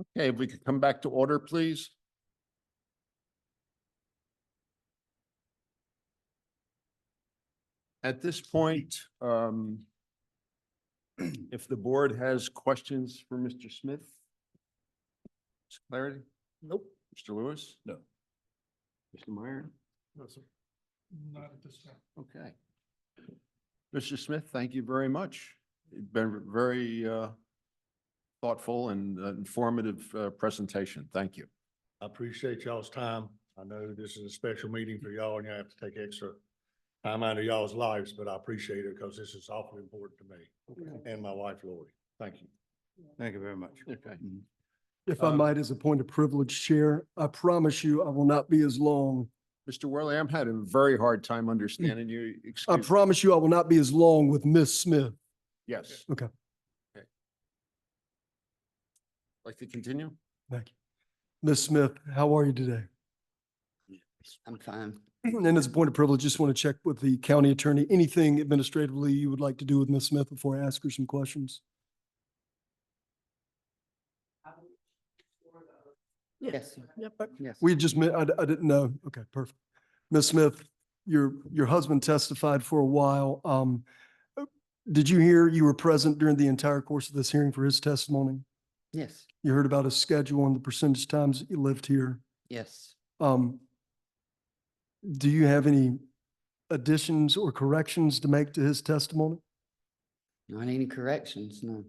Okay, if we could come back to order, please. At this point, um, if the board has questions for Mr. Smith? Mr. Clarity? Nope. Mr. Lewis? No. Mr. Meyer? No, sir. Not at this time. Okay. Mr. Smith, thank you very much. You've been very uh, thoughtful and uh, informative uh, presentation. Thank you. I appreciate y'all's time. I know this is a special meeting for y'all and you have to take extra time out of y'all's lives, but I appreciate it because this is awfully important to me and my wife Lori. Thank you. Thank you very much. Okay. If I Um, might, as a point of privilege, Chair, I promise you I will not be as long. Mr. Worley, I'm having a very hard time understanding you. I Excuse, promise you I will not be as long with Miss Smith. yes. Okay. Okay. Like to continue? Thank you. Miss Smith, how are you today? I'm fine. And as a point of privilege, just want to check with the county attorney, anything administratively you would like to do with Miss Smith before I ask her some questions? Yes. Yep. Yes. We just met, I, I didn't know. Okay, perfect. Ms. Smith, your, your husband testified for a while. Um, uh, did you hear you were present during the entire course of this hearing for his testimony? Yes, You heard about his schedule and the percentage times that you lived here. yes. Um, do you have any additions or corrections to make to his testimony? Not any corrections, no.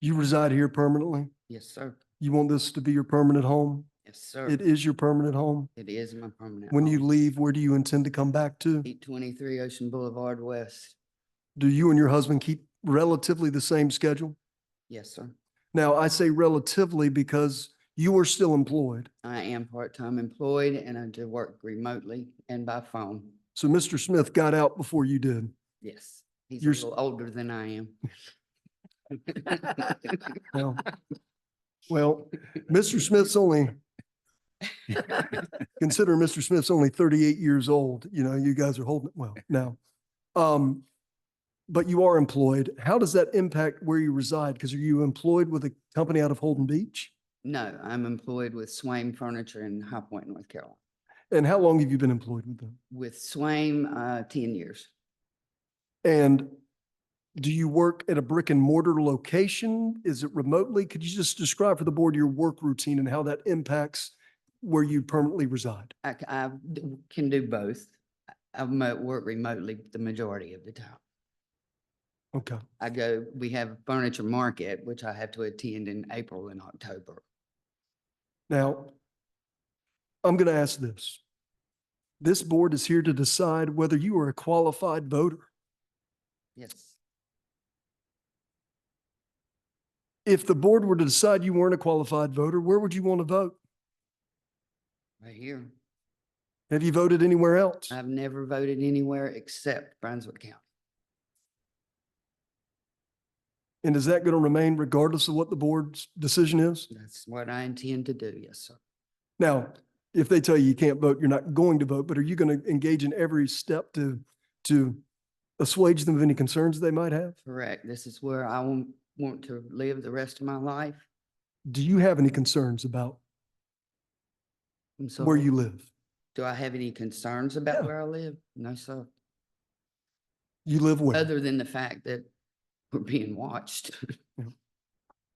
You reside here permanently. Yes, sir. You want this to be your permanent home? Yes, sir. It is your permanent home. It is my permanent. When you leave, where do you intend to come back to? Eight twenty-three Ocean Boulevard West. Do you and your husband keep relatively the same schedule? Yes, sir. Now, I say relatively because you are still employed. I am part-time employed and I do work remotely and by phone. So Mr. Smith got out before you did. Yes. He's a You're s- little older than I am. Well, well, Mr. Smith's only, consider Mr. Smith's only thirty-eight years old. You know, you guys are holding it well now. Um, but you are employed. How does that impact where you reside? Because are you employed with a company out of Holden Beach? No, I'm employed with Swain Furniture in High Point, North Carolina. And how long have you been employed with them? With Swain, uh, ten years. And do you work at a brick and mortar location? Is it remotely? Could you just describe for the board your work routine and how that impacts where you permanently reside? I, c- I d- can do both. I- I mo- work remotely the majority of the time. Okay. I go, we have a furniture market, which I have to attend in April and October. Now, I'm going to ask this. This board is here to decide whether you are a qualified voter. Yes, If the board were to decide you weren't a qualified voter, where would you want to vote? right here. Have you voted anywhere else? I've never voted anywhere except Brunswick County. And is that going to remain regardless of what the board's decision is? That's what I intend to do, yes, sir. Now, if they tell you you can't vote, you're not going to vote, but are you going to engage in every step to, to assuage them of any concerns they might have? Correct. This is where I want, want to live the rest of my life. Do you have any concerns about And so, where you live? Do I have any concerns about Yeah. where I live? No, sir. You live where? Other than the fact that we're being watched.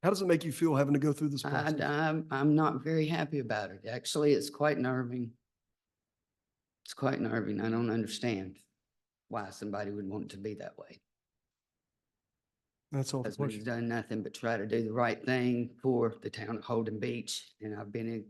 How does it make you feel having to go through this I, process? I'm, I'm not very happy about it. Actually, it's quite nerving. It's quite nerving. I don't understand why somebody would want to be that way. That's all the Because we've question. done nothing but try to do the right thing for the town of Holden Beach, and I've been in